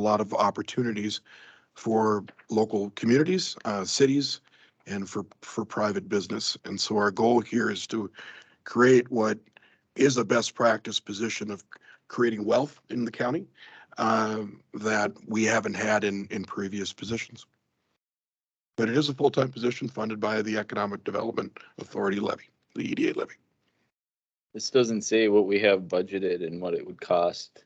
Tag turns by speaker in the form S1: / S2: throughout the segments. S1: a lot of opportunities for local communities, uh, cities, and for, for private business. And so our goal here is to create what is a best practice position of creating wealth in the county um, that we haven't had in, in previous positions. But it is a full-time position funded by the Economic Development Authority levy, the EDA levy.
S2: This doesn't say what we have budgeted and what it would cost.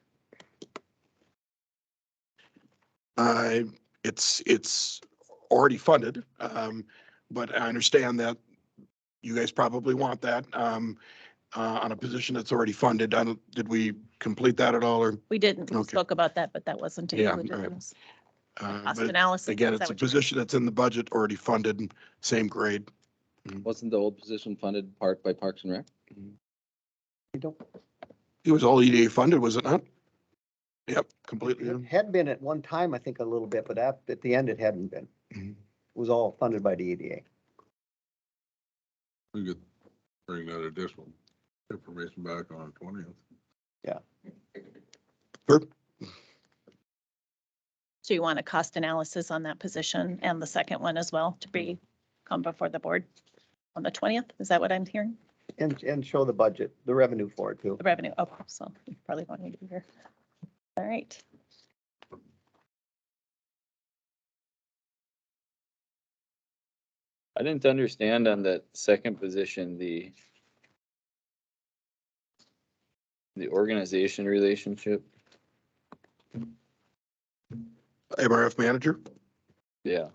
S1: Uh, it's, it's already funded, um, but I understand that you guys probably want that, um, uh, on a position that's already funded. I don't, did we complete that at all or?
S3: We didn't, we
S1: Okay.
S3: spoke about that, but that wasn't
S1: Yeah,
S3: included
S1: all right.
S3: in this
S1: uh,
S3: cost
S1: but
S3: analysis.
S1: Again,
S3: is that
S1: it's a
S3: what you meant?
S1: position that's in the budget, already funded, same grade.
S2: Wasn't the old position funded part by Parks and Rec?
S1: It was all EDA funded, was it not? Yep, completely. yeah.
S4: It had been at one time, I think, a little bit, but at, at the end, it hadn't been.
S1: Mhm.
S4: It was all funded by the E EDA.
S5: We could bring that additional information back on the twentieth.
S3: So you want a cost analysis on that position and the second one as well to be,
S1: Mm-hmm.
S3: come before the board on the twentieth? Is that what I'm hearing?
S4: And, and show the budget, the revenue for it too.
S3: The revenue, oh, so you probably won't need to be here. All right.
S2: I didn't understand on that second position, the the organization relationship.
S1: MRF manager,
S2: Yeah,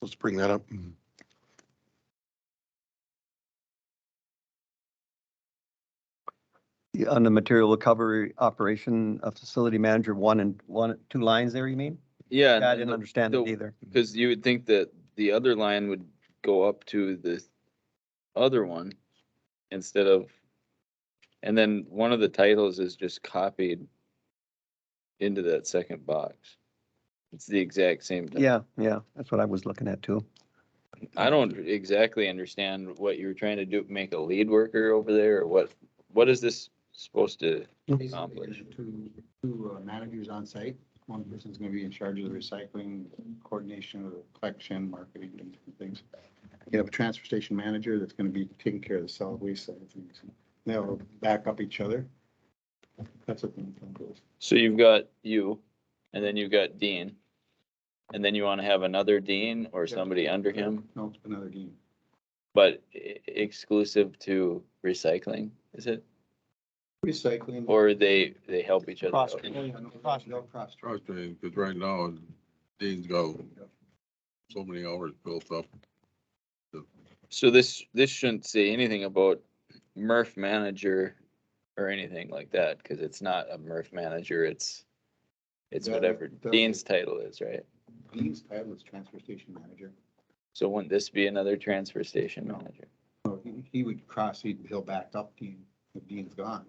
S1: let's bring that up.
S4: Yeah, On the material recovery operation, a facility manager, one and, one, two lines there, you mean?
S2: yeah.
S4: Yeah, I didn't understand that
S2: the-
S4: either.
S2: Because you would think that the other line would go up to the other one instead of, and then one of the titles is just copied into that second box. It's the exact same. title.
S4: Yeah, yeah, that's what I was looking at too.
S2: I don't exactly understand what you were trying to do, make a lead worker over there, or what, what is this supposed to?
S6: Basically,
S2: accomplish.
S6: there's two, two uh, managers on site. One person's gonna be in charge of the recycling, coordination of the collection, marketing, and different things. You have a transfer station manager that's gonna be taking care of the solid waste side of things. They'll back up each other. That's what the intent is.
S2: So you've got you, and then you've got Dean, and then you want to have another Dean or somebody under him,
S6: No, it's another game.
S2: but e- exclusive to recycling, is it?
S6: Recycling.
S2: Or they, they help each other out?
S4: Cross-
S6: Oh, yeah, no, no cross.
S5: Trust me, because right now, Dean's got so many hours built up.
S2: So this, this shouldn't say anything about MRF manager or anything like that, because it's not a MRF manager, it's, it's
S6: Yeah,
S2: whatever
S6: that- that-
S2: Dean's title is, right?
S6: Dean's title is transfer station manager.
S2: So wouldn't this be another transfer station
S6: No.
S2: manager?
S6: So he- he would cross, he'd- he'll back up Dean, if Dean's gone.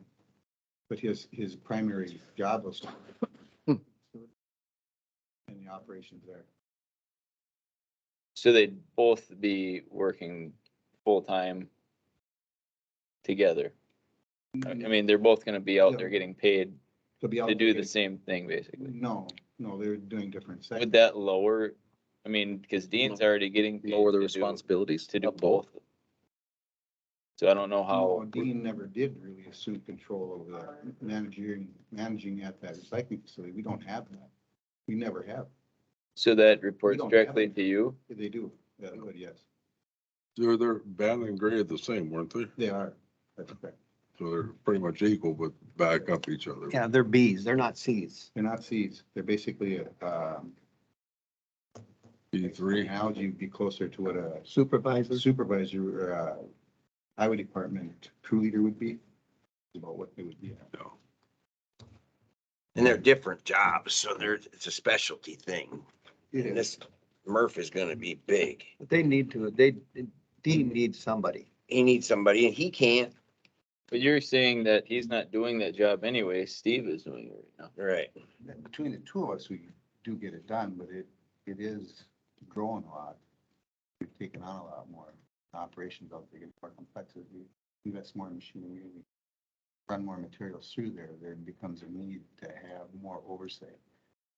S6: But his, his primary job was. in the operations there.
S2: So they'd both be working full-time together? I I
S6: Mm-hmm.
S2: mean, they're both gonna be out there getting paid
S6: To be
S2: to do the
S6: allocated-
S2: same thing, basically.
S6: No, no, they're doing different.
S2: Would
S6: sections.
S2: that lower, I mean,
S6: Mm-hmm.
S2: because Dean's already getting. paid
S7: lower the
S2: to do-
S7: responsibilities
S2: To do
S7: of both.
S2: both. So I don't know
S6: No,
S2: how,
S6: Dean never did really assume control over that managing, managing at that recycling facility. We don't have that. We never have.
S2: so that reports
S6: don't have
S2: directly
S6: it.
S2: to you?
S6: They do, yeah, but yes,
S5: They're, they're bad and gray at the same, weren't they?
S6: they are. That's correct.
S5: So they're pretty much equal, but back up each other.
S4: Yeah, they're Bs, they're not Cs.
S6: They're not seeds. They're basically, um,
S5: E three,
S6: analogy would be closer to what a
S4: Supervisors.
S6: supervisor, or, uh, highway department crew leader would be, about what they would be.
S8: And they're different jobs, so there's, it's a specialty thing. And this Murph is gonna be big.
S4: But They need to, they, Dean needs somebody.
S8: He needs somebody and he can't.
S2: But you're saying that he's not doing that job anyway, Steve is doing it right now.
S8: Right.
S6: Between the two of us, we do get it done, but it, it is growing a lot. We've taken on a lot more operations out there, get more complexity, invest more in machinery, we run more materials through there, there becomes a need to have more oversight.